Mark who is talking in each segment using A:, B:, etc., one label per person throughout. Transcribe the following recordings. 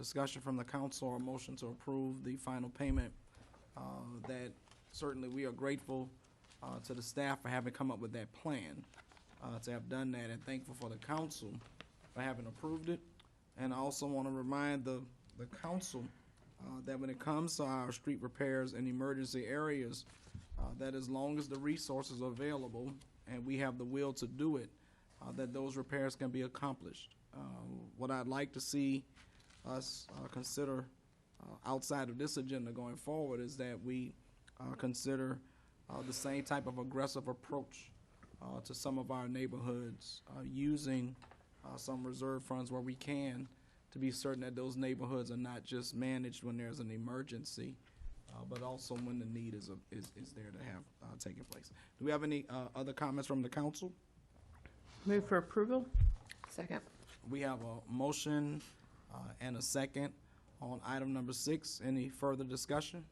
A: discussion from the council or a motion to approve the final payment, uh, that certainly we are grateful uh, to the staff for having come up with that plan, uh, to have done that, and thankful for the council for having approved it. And I also want to remind the, the council uh, that when it comes to our street repairs in emergency areas, uh, that as long as the resources are available and we have the will to do it, uh, that those repairs can be accomplished. Uh, What I'd like to see us uh, consider uh, outside of this agenda going forward is that we uh, consider uh, the same type of aggressive approach uh, to some of our neighborhoods, uh, using uh, some reserve funds where we can to be certain that those neighborhoods are not just managed when there's an emergency, uh, but also when the need is, a- is, is there to have uh, taken place. Do we have any uh, other comments from the council?
B: Move for approval?
C: Second.
A: We have a motion uh, and a second on item number six. Any further discussion?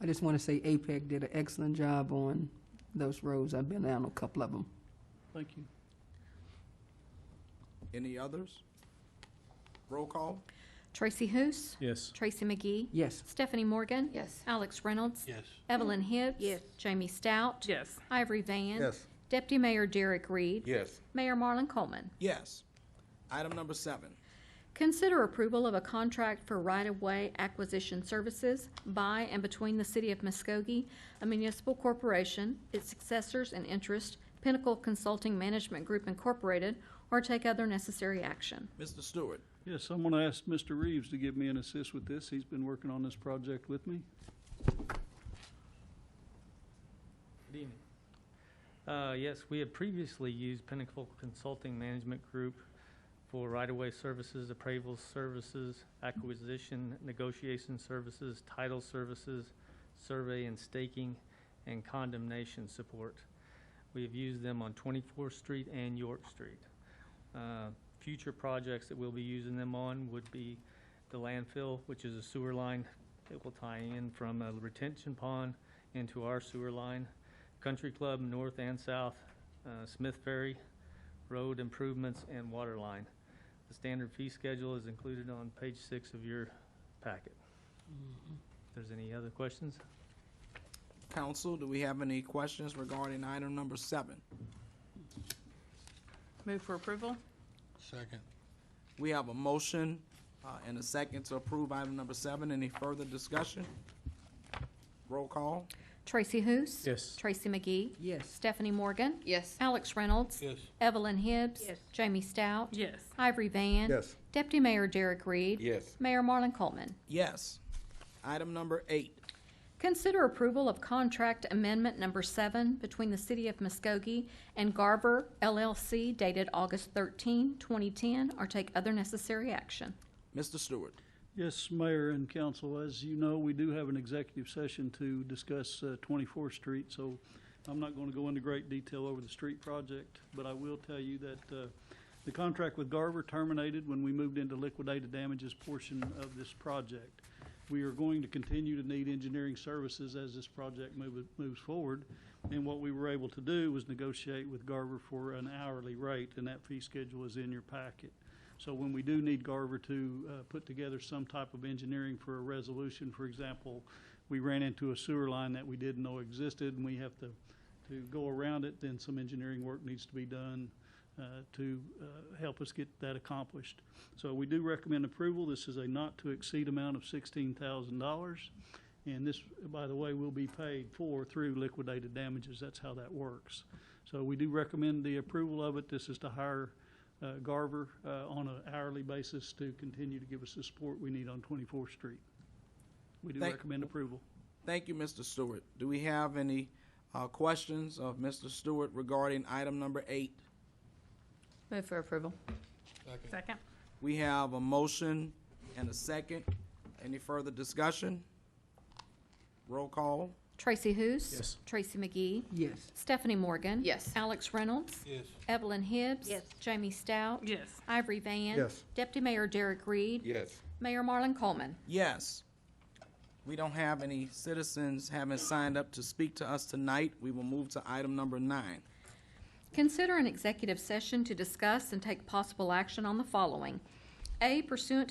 D: I just want to say APEC did an excellent job on those roads. I've been down a couple of them.
B: Thank you.
A: Any others? Roll call?
E: Tracy Hous.
F: Yes.
E: Tracy McGee.
D: Yes.
E: Stephanie Morgan.
C: Yes.
E: Alex Reynolds.
F: Yes.
E: Evelyn Hibbs.
C: Yes.
E: Jamie Stout.
B: Yes.
E: Ivory Van.
G: Yes.
E: Deputy Mayor Derek Reed.
G: Yes.
E: Mayor Marlon Coleman.
A: Yes. Item number seven.
E: Consider approval of a contract for right-of-way acquisition services by and between the City of Muskogee, a municipal corporation, its successors and interest, Pinnacle Consulting Management Group Incorporated, or take other necessary action.
A: Mr. Stewart?
F: Yes, I'm going to ask Mr. Reeves to give me an assist with this. He's been working on this project with me.
H: Good evening. Uh, Yes, we had previously used Pinnacle Consulting Management Group for right-of-way services, appraisal services, acquisition, negotiation services, title services, survey and staking, and condemnation support. We have used them on 24th Street and York Street. Uh, Future projects that we'll be using them on would be the landfill, which is a sewer line that will tie in from a retention pond into our sewer line. Country Club, north and south, uh, Smith Ferry, road improvements, and water line. The standard fee schedule is included on page six of your packet. If there's any other questions?
A: Council, do we have any questions regarding item number seven?
B: Move for approval?
G: Second.
A: We have a motion uh, and a second to approve item number seven. Any further discussion? Roll call?
E: Tracy Hous.
F: Yes.
E: Tracy McGee.
D: Yes.
E: Stephanie Morgan.
C: Yes.
E: Alex Reynolds.
G: Yes.
E: Evelyn Hibbs.
B: Yes.
E: Jamie Stout.
B: Yes.
E: Ivory Van.
G: Yes.
E: Deputy Mayor Derek Reed.
G: Yes.
E: Mayor Marlon Coleman.
A: Yes. Item number eight.
E: Consider approval of contract amendment number seven between the City of Muskogee and Garver LLC dated August 13, 2010, or take other necessary action.
A: Mr. Stewart?
F: Yes, Mayor and Council, as you know, we do have an executive session to discuss uh, 24th Street, so I'm not going to go into great detail over the street project, but I will tell you that uh, the contract with Garver terminated when we moved into liquidated damages portion of this project. We are going to continue to need engineering services as this project move- moves forward, and what we were able to do was negotiate with Garver for an hourly rate, and that fee schedule is in your packet. So when we do need Garver to uh, put together some type of engineering for a resolution, for example, we ran into a sewer line that we didn't know existed, and we have to, to go around it, then some engineering work needs to be done uh, to uh, help us get that accomplished. So we do recommend approval. This is a not-to-exceed amount of $16,000. And this, by the way, will be paid for through liquidated damages. That's how that works. So we do recommend the approval of it. This is to hire uh, Garver uh, on an hourly basis to continue to give us the support we need on 24th Street. We do
A: Thank-
F: recommend approval.
A: Thank you, Mr. Stewart. Do we have any uh, questions of Mr. Stewart regarding item number eight?
C: Move for approval.
B: Second?
A: We have a motion and a second. Any further discussion? Roll call?
E: Tracy Hous.
F: Yes.
E: Tracy McGee.
D: Yes.
E: Stephanie Morgan.
C: Yes.
E: Alex Reynolds.
G: Yes.
E: Evelyn Hibbs.
C: Yes.
E: Jamie Stout.
B: Yes.
E: Ivory Van.
G: Yes.
E: Deputy Mayor Derek Reed.
G: Yes.
E: Mayor Marlon Coleman.
A: Yes. We don't have any citizens having signed up to speak to us tonight. We will move to item number nine.
E: Consider an executive session to discuss and take possible action on the following. A pursuant to